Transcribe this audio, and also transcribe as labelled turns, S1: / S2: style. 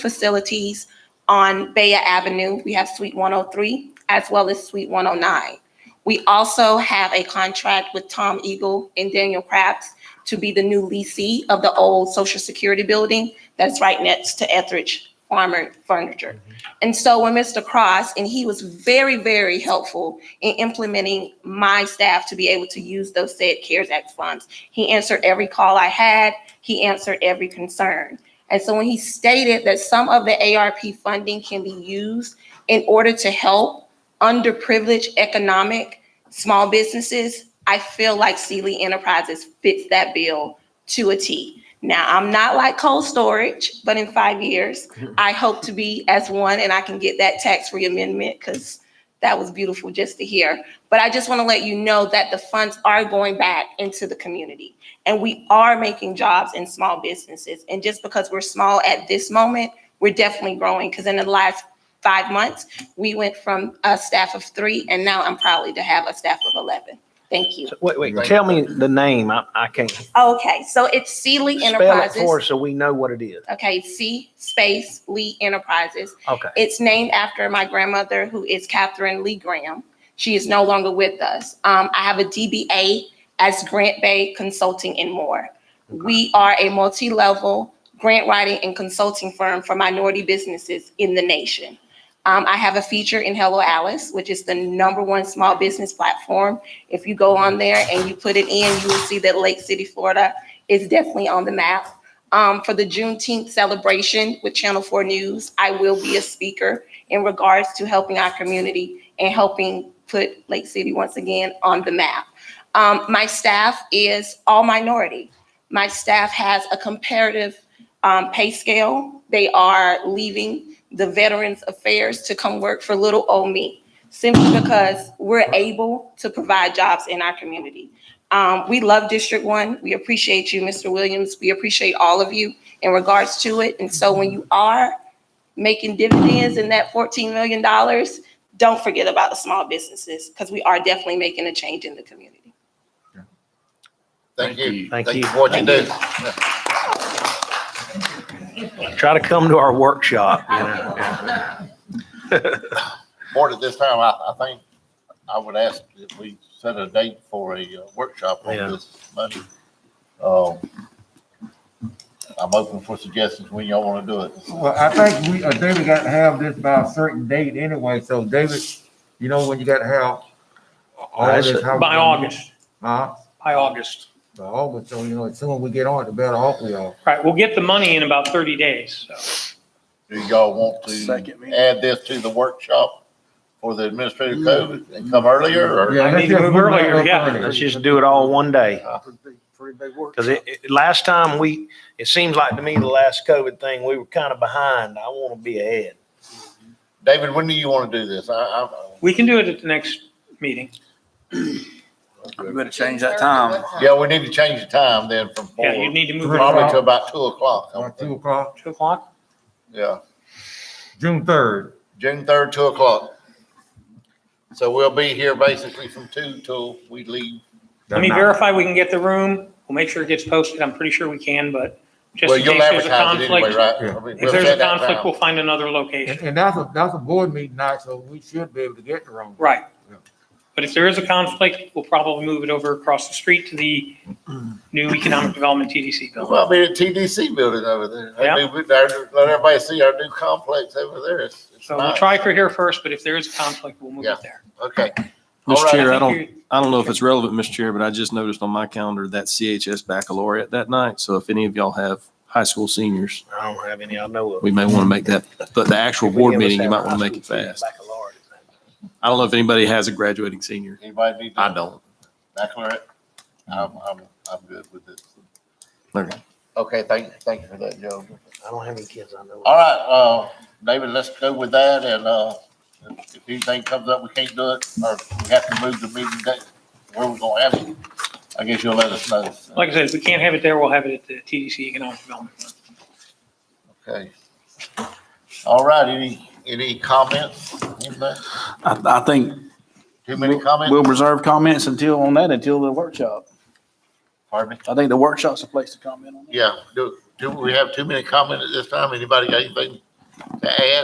S1: facilities on Baya Avenue. We have Suite 103 as well as Suite 109. We also have a contract with Tom Eagle and Daniel Krabs to be the new leasee of the old Social Security building that's right next to Etheridge Farmer Furniture. And so when Mr. Cross, and he was very, very helpful in implementing my staff to be able to use those said CARES Act funds. He answered every call I had. He answered every concern. And so when he stated that some of the ARP funding can be used in order to help underprivileged economic small businesses, I feel like Sealy Enterprises fits that bill to a T. Now, I'm not like cold storage, but in five years, I hope to be as one and I can get that tax-free amendment because that was beautiful just to hear. But I just want to let you know that the funds are going back into the community and we are making jobs in small businesses. And just because we're small at this moment, we're definitely growing because in the last five months, we went from a staff of three and now I'm proudly to have a staff of 11. Thank you.
S2: Wait, wait, tell me the name. I, I can't.
S1: Okay, so it's Sealy
S2: Spell it for
S1: Enterprises.
S2: us so we know what it is.
S1: Okay, C space Lee Enterprises.
S2: Okay.
S1: It's named after my grandmother, who is Catherine Lee Graham. She is no longer with us. Um, I have a DBA as Grant Bay Consulting and more. We are a multi-level grant writing and consulting firm for minority businesses in the nation. Um, I have a feature in Hello Alice, which is the number one small business platform. If you go on there and you put it in, you will see that Lake City, Florida is definitely on the map. Um, for the Juneteenth celebration with Channel Four News, I will be a speaker in regards to helping our community and helping put Lake City once again on the map. Um, my staff is all minority. My staff has a comparative, um, pay scale. They are leaving the Veterans Affairs to come work for little old me, simply because we're able to provide jobs in our community. Um, we love District One. We appreciate you, Mr. Williams. We appreciate all of you in regards to it. And so when you are making dividends in that fourteen million dollars, don't forget about the small businesses, because we are definitely making a change in the community.
S3: Thank you.
S2: Thank you.
S3: for What you do.
S2: Try to come to our workshop, you know.
S3: Board, at this time, I, I think I would ask if we set a date for a uh, workshop on
S2: Yeah.
S3: this Monday. Um, I'm open for suggestions when y'all want to do it.
S4: Well, I think we, uh, David got to have this by a certain date anyway, so David, you know, when you got to have all
S2: That's
S4: this.
S2: it.
S4: how-
S5: By August,
S4: Huh?
S5: by August.
S4: By August, so you know, the sooner we get on it, the better off we are.
S5: Right, we'll get the money in about 30 days. so.
S3: Do y'all want to add this to the workshop for the administrative code and come earlier or?
S4: Yeah,
S5: I
S4: let's
S5: need to
S4: just
S5: move
S4: it
S5: earlier,
S4: up
S5: yeah.
S4: earlier.
S2: Let's just do it all one day. Cause it, it- last time we, it seems like to me, the last COVID thing, we were kind of behind. I want to be ahead.
S3: David, when do you want to do this? I, I,
S5: We can do it at the next meeting.
S6: You better change that time.
S3: yeah, we need to change the time then from four,
S5: Yeah, you need to move it
S4: Robert.
S5: to
S3: probably to about two o'clock. I would
S4: About Uh, Two
S3: think.
S4: o'clock,
S5: 2 o'clock.
S3: Yeah.
S4: June third.
S3: June third, two o'clock. So we'll be here basically from two till we leave.
S5: Let me verify we can get the room. We'll make sure it gets posted. I'm pretty sure we can, but just
S3: Well,
S5: in case
S3: you'll
S5: there's a
S3: advertise it anyway,
S5: conflict.
S3: right?
S4: Yeah.
S3: I mean,
S5: If
S3: we'll
S5: there's a
S3: set that
S5: conflict,
S3: down.
S5: we'll find another
S4: And,
S5: location.
S4: and that's a, that's a board meeting night, so we should be able to get the room.
S5: Right.
S4: Yeah.
S5: But if there is a conflict, we'll probably move it over across the street to the new Economic Development TDC building.
S3: Well, I mean, the TDC building over there. I
S5: Yeah.
S3: mean, we- our- Let everybody see our new complex over there. It's- it's
S5: So we'll
S3: nice.
S5: try for here first, but if there is a conflict, we'll move
S3: Yeah.
S5: it there.
S3: Okay. All
S6: Mr.
S3: right,
S6: Chair, I
S5: think
S6: don't, I don't know if it's relevant, Mr. Chair, but I just noticed on my calendar that CHS baccalaureate that night. So if any of y'all have high school seniors,
S2: I don't have any, I know of.
S6: we may want to make that, but the actual board meeting, you might want to make it fast. I don't know if anybody has a graduating senior.
S3: Anybody need?
S6: I don't.
S3: Baccalaureate? I'm, I'm, I'm good with this.
S6: Okay.
S3: Okay, thank, thank you for that, Joe.
S2: I don't have any kids I know of.
S3: All right, uh, David, let's go with that and, uh, if if anything comes up, we can't do it, or we have to move the meeting date, where we're gonna have it, I guess you'll let us know.
S5: Like I said, if we can't have it there, we'll have it at the TDC Economic Development.
S3: Okay. All right, any, any comments? Anybody?
S6: I, I think
S3: Too many
S6: we'll
S3: comments?
S6: reserve comments until, on that, until the workshop.
S3: Pardon me?
S6: I think the workshop's a place to comment on.
S3: Yeah, do, do we have too many comments at this time? Anybody got anything to add